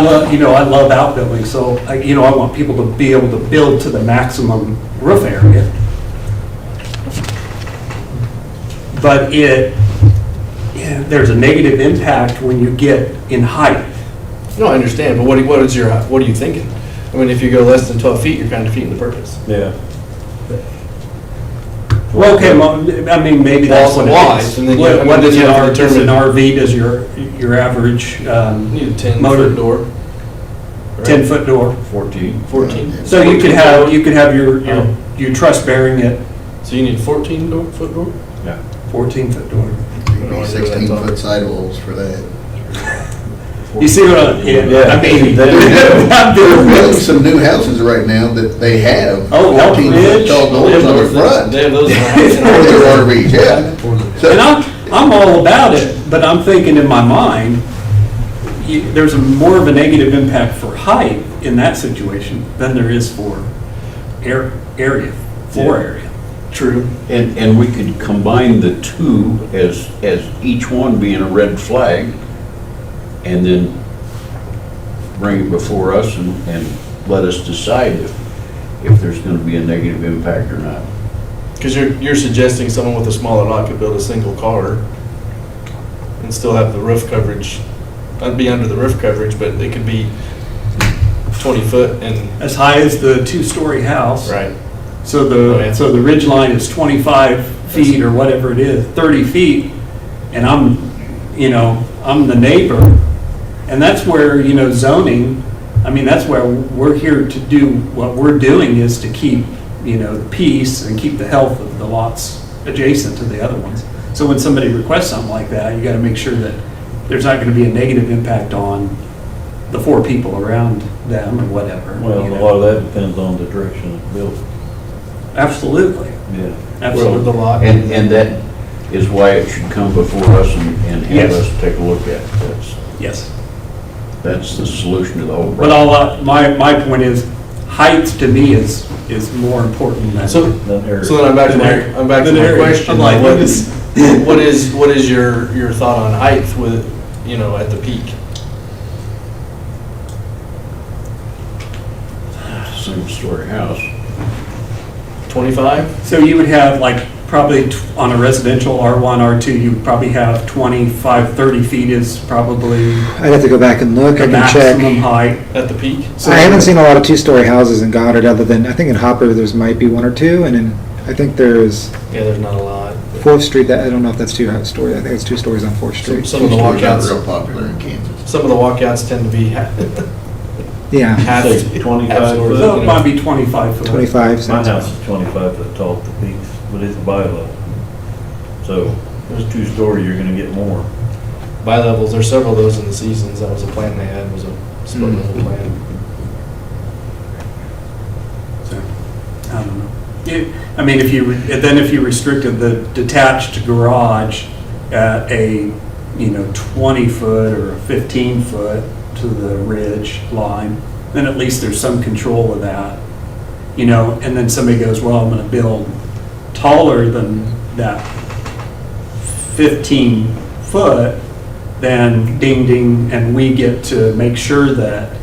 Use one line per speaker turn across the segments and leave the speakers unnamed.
love- You know, I love outbuildings, so, I- you know, I want people to be able to build to the maximum roof area. But it, yeah, there's a negative impact when you get in height.
No, I understand, but what, do- what is your, what are you thinking? I mean, if you go less than 12 feet, you're kind of defeating the purpose.
Yeah.
Well, okay, well, I mean, maybe that's what it
Walls,
is.
and then you- I mean,
What what is
then you
an
have to
R- is an
determine-
RV, does your, your average
You Need a
Motor.
10-foot door. right?
10-foot door?
14.
14.
So you could have, you could have your,
Oh.
your- your truss bearing at
So you need 14-foot door?
Yeah.
14-foot door.
No, I do that
Sixteen
thought.
foot sidewalls for that.
You see what I, yeah, I mean,
Yeah.
I'm
They're building
doing-
some new houses right now that they have
Oh, Elk
fourteen foot
Ridge.
tall doors on the front
They have those in our
for
house.
their RVs, yeah. So-
and I'm, I'm all about it, but I'm thinking in my mind, you- there's a more of a negative impact for height in that situation than there is for air, area, floor
Yeah.
area.
True.
And, and we could combine the two as, as each one being a red flag, and then bring it before us and, and let us decide if, if there's gonna be a negative impact or not.
Because you're, you're suggesting someone with a smaller lot could build a single car and still have the roof coverage, not be under the roof coverage, but it could be 20 foot and,
As high as the two-story house.
right.
So
Oh, yeah.
the, so the ridge line is 25 feet or whatever it is, 30 feet, and I'm, you know, I'm the neighbor. And that's where, you know, zoning, I mean, that's where we're here to do, what we're doing is to keep, you know, the peace and keep the health of the lots adjacent to the other ones. So when somebody requests something like that, you got to make sure that there's not going to be a negative impact on the four people around them or whatever.
Well,
you
a
know.
lot of that depends on the direction of the building.
Absolutely,
Yeah.
With the
absolutely.
lot.
And, and that is why it should come before us and, and have
Yes.
us take a look at it. That's,
Yes.
that's the solution to the whole
But
problem.
all, I- my, my point is, height to me is, is more important than.
So,
Then area.
So then I'm back to my, I'm back to
Than
my
area.
question.
I'm like,
What-
what is-
What is, what is your, your thought on height with, you know, at the peak?
Single-story house.
25?
So you would have like, probably t- on a residential R1, R2, you would probably have 25, 30 feet is probably
I'd have to go back and look, I
the
can
maximum
check.
height.
At the peak?
I haven't seen a lot of two-story houses in Goddard, other than, I think in Hopper, there's might be one or two, and in, I think there's
Yeah, there's not a lot.
Fourth Street, that, I don't know if that's two-story, I think it's two stories on Fourth
Some
Street.
some of the
Two-stories aren't
walkouts,
Real popular in Kansas.
some of the walkouts tend to be ha-
Yeah,
half.
Say 25
half doors,
foot.
So
you
it
know.
might be 25 foot.
twenty-five.
My
sounds-
house is 25 foot tall at the peaks, but it's bylaw. So if it's two-story, you're gonna get more.
Bi-levels, there's several of those in the seasons. That was a plan they had, was a split level plan.
So, I don't know. It- I mean, if you, re- then if you restricted the detached garage at a, you know, 20-foot or a 15-foot to the ridge line, then at least there's some control of that, you know? And then somebody goes, well, I'm going to build taller than that 15-foot, then ding, ding, and we get to make sure that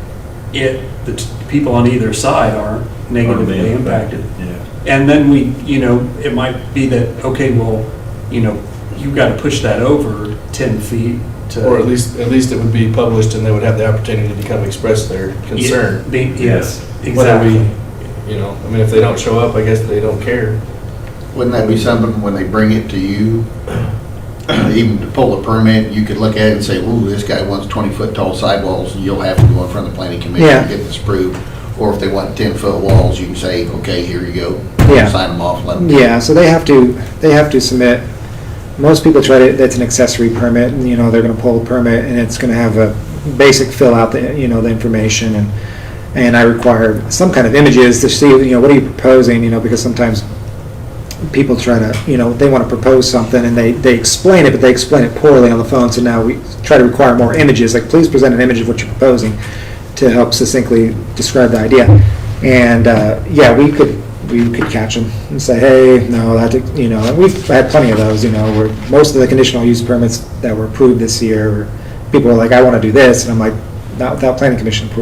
it, the t- people on either side aren't negatively impacted.
Yeah.
And then we, you know, it might be that, okay, well, you know, you've got to push that over 10 feet to.
Or at least, at least it would be published and they would have the opportunity to come express their concern.
Yeah, be- Yes,
Whether we,
exactly.
You know, I mean, if they don't show up, I guess they don't care.
Wouldn't that be something when they bring it to you, even to pull a permit, you could look at it and say, ooh, this guy wants twenty foot tall sidewalls, and you'll have to go in front of the planning commission
Yeah.
to get this approved. Or if they want ten foot walls, you can say, okay, here you go.
Yeah.
Sign them off, let them.
Yeah, so they have to, they have to submit, most people try to, that's an accessory permit, and, you know, they're gonna pull a permit, and it's gonna have a basic fill out, the you know, the information, and, and I require some kind of images to see, you know, what are you proposing, you know, because sometimes people try to, you know, they wanna propose something, and they, they explain it, but they explain it poorly on the phone, so now we try to require more images, like, please present an image of what you're proposing, to help succinctly describe the idea. And, uh, yeah, we could, we could catch them and say, hey, no, that, did- you know, and we've had plenty of those, you know, where most of the conditional use permits that were approved this year, people are like, I want to do this, and I'm like, not without planning commission approval.